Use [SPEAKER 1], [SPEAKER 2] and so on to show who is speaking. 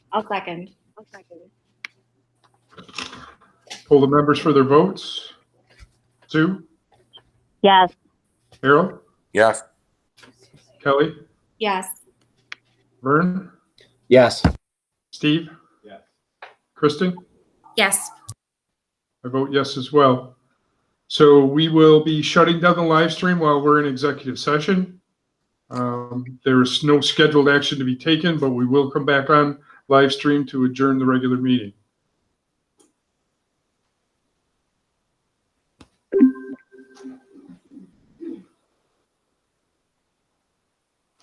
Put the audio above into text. [SPEAKER 1] I'll second.
[SPEAKER 2] Poll the members for their votes. Sue,
[SPEAKER 3] Yes.
[SPEAKER 2] Harold,
[SPEAKER 4] Yes.
[SPEAKER 2] Kelly,
[SPEAKER 1] Yes.
[SPEAKER 2] Vern,
[SPEAKER 5] Yes.
[SPEAKER 2] Steve?
[SPEAKER 6] Yes.
[SPEAKER 2] Kristen?
[SPEAKER 1] Yes.
[SPEAKER 2] I vote yes as well. So we will be shutting down the live stream while we're in executive session. Um, There is no scheduled action to be taken, but we will come back on live stream to adjourn the regular meeting.